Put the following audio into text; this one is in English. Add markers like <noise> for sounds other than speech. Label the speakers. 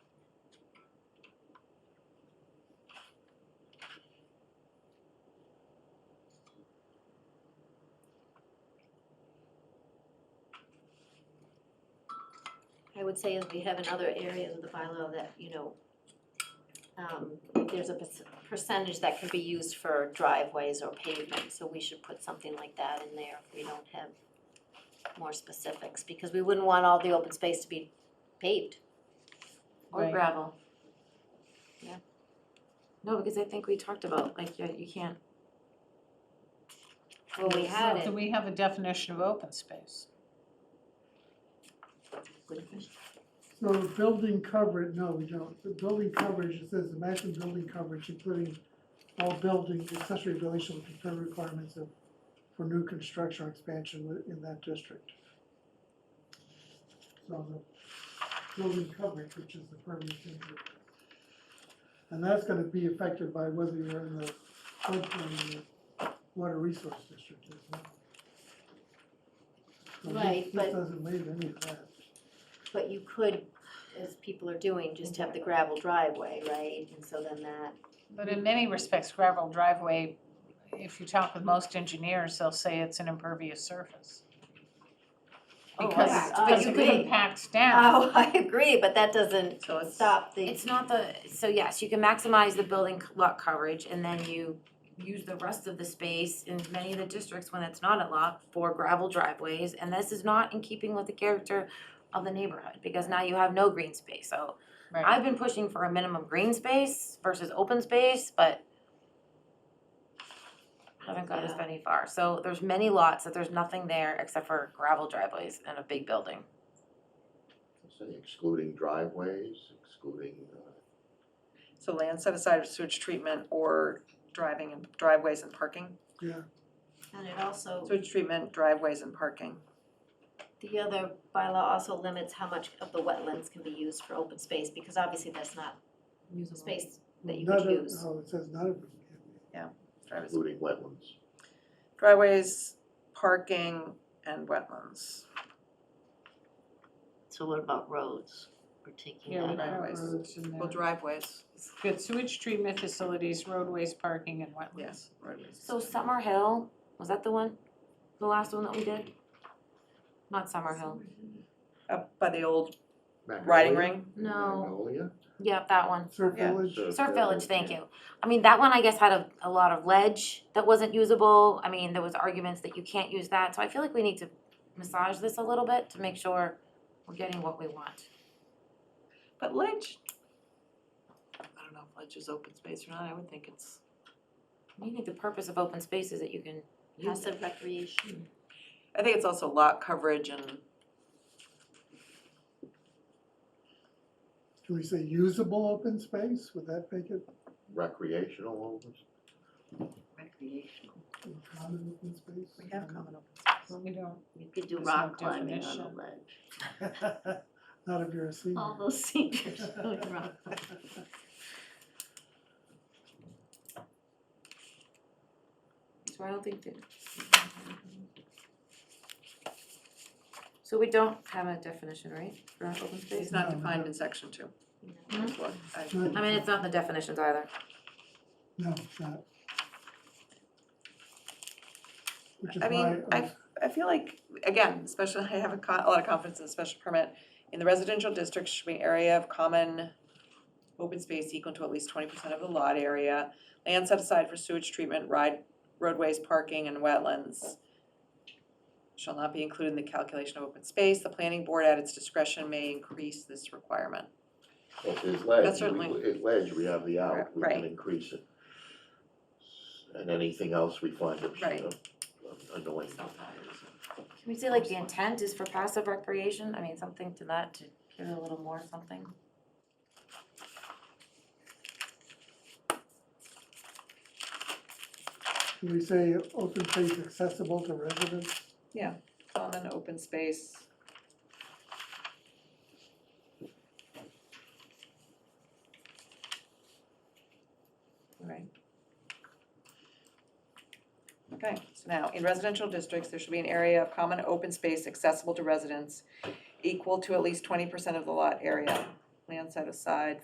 Speaker 1: I would say is we have in other areas of the bylaw that, you know, um, there's a perc- percentage that can be used for driveways or pavement, so we should put something like that in there if we don't have more specifics, because we wouldn't want all the open space to be paved.
Speaker 2: Or
Speaker 3: Right.
Speaker 2: gravel. Yeah. No, because I think we talked about, like, you, you can't,
Speaker 1: Well, we had
Speaker 3: Oh, So do
Speaker 1: it,
Speaker 3: we have a definition of open space?
Speaker 4: So building coverage, no, we don't. The building coverage, it says the maximum building coverage, including all building, accessory buildings shall fulfill requirements of, for new construction or expansion wi- in that district. So the building coverage, which is the permanent injury. And that's gonna be affected by whether you're in the floodplain or water resource district as well. So this-
Speaker 1: Right, but-
Speaker 4: This doesn't leave any of that.
Speaker 1: but you could, as people are doing, just have the gravel driveway, right? And so then that,
Speaker 3: But
Speaker 1: Mm-hmm.
Speaker 3: in many respects, gravel driveway, if you talk with most engineers, they'll say it's an impervious surface.
Speaker 1: Oh,
Speaker 3: Because,
Speaker 1: right.
Speaker 3: because
Speaker 1: Oh, you
Speaker 3: it
Speaker 1: could-
Speaker 3: impacts down,
Speaker 1: oh, <laughs> I agree, but that doesn't
Speaker 3: so it's.
Speaker 1: stop the
Speaker 2: it's not the, so yes, you can maximize the building co- lot coverage and then you use the rest of the space in many of the districts when it's not a lot for gravel driveways, and this is not in keeping with the character of the neighborhood, because now you have no green space, so
Speaker 3: Right.
Speaker 2: I've been pushing for a minimum green space versus open space, but haven't gotten as
Speaker 1: Yeah.
Speaker 2: many far. So there's many lots that there's nothing there except for gravel driveways and a big building.
Speaker 5: Say excluding driveways, excluding, uh,
Speaker 6: So land set aside for sewage treatment or driving and driveways and parking?
Speaker 4: Yeah,
Speaker 1: And it also,
Speaker 6: Sewage treatment, driveways and parking.
Speaker 1: the other bylaw also limits how much of the wetlands can be used for open space, because obviously that's not space that you
Speaker 4: Not
Speaker 1: could
Speaker 4: a-
Speaker 1: use.
Speaker 4: Oh, it says not a,
Speaker 6: Driveways,
Speaker 5: including wetlands.
Speaker 6: driveways, parking and wetlands.
Speaker 7: So what about roads? We're taking
Speaker 3: Yeah,
Speaker 7: that
Speaker 3: we've
Speaker 7: out.
Speaker 3: got
Speaker 6: driveways.
Speaker 3: roads in
Speaker 6: Well,
Speaker 3: there.
Speaker 6: driveways,
Speaker 3: Good sewage treatment facilities, roadways, parking and wetlands.
Speaker 6: yes, roadways.
Speaker 2: So Summer Hill, was that the one, the last one that we did? Not Summer Hill,
Speaker 6: Up by the old
Speaker 5: Magnolia?
Speaker 6: riding ring,
Speaker 2: no,
Speaker 5: Magnolia?
Speaker 2: yep, that one,
Speaker 4: surf
Speaker 6: Yeah.
Speaker 4: village.
Speaker 2: Surf Village, thank you. I mean, that one I guess had a, a lot of ledge that wasn't usable, I mean, there was arguments that you can't use that, so I feel like we need to massage this a little bit to make sure we're getting what we want.
Speaker 6: but ledge. I don't know if ledge is open space or not, I would think it's,
Speaker 2: I think the purpose of open space is that you can use it.
Speaker 1: Passive recreation.
Speaker 6: I think it's also lot coverage and
Speaker 4: Can we say usable open space? Would that make it
Speaker 5: Recreational open
Speaker 7: Recreational.
Speaker 4: common open space?
Speaker 6: we have common open
Speaker 3: But
Speaker 6: space.
Speaker 3: we don't,
Speaker 7: You could do
Speaker 3: There's no
Speaker 7: rock climbing on a
Speaker 3: definition.
Speaker 7: ledge.
Speaker 4: <laughs> Not if you're a senior.
Speaker 7: All those seniors doing
Speaker 4: <laughs>
Speaker 7: rock.
Speaker 2: So I don't think that. So we don't have a definition, right, for open space?
Speaker 6: It's not defined in section two. That's what I-
Speaker 4: Not-
Speaker 2: I mean, it's not in the definitions either.
Speaker 4: No, it's not. Which is
Speaker 6: I mean,
Speaker 4: why, uh,
Speaker 6: I, f- I feel like, again, especially, <laughs> I have a co- a lot of confidence in the special permit. In the residential district should be an area of common open space equal to at least twenty percent of the lot area. Land set aside for sewage treatment, ride, roadways, parking and wetlands. Shall not be included in the calculation of open space, the planning board at its discretion may increase this requirement.
Speaker 5: Well, if there's ledge,
Speaker 6: That's
Speaker 5: we,
Speaker 6: certainly-
Speaker 5: if ledge, we have the out, we
Speaker 6: Right.
Speaker 5: can increase it. And anything else we find it
Speaker 6: Right.
Speaker 5: annoying.
Speaker 2: Can we say like the intent is for passive recreation? I mean, something to that, to give it a little more something.
Speaker 4: can we say open space accessible to residents?
Speaker 6: Common open space. Right. Okay, so now, in residential districts, there should be an area of common open space accessible to residents equal to at least twenty percent of the lot area. Land set aside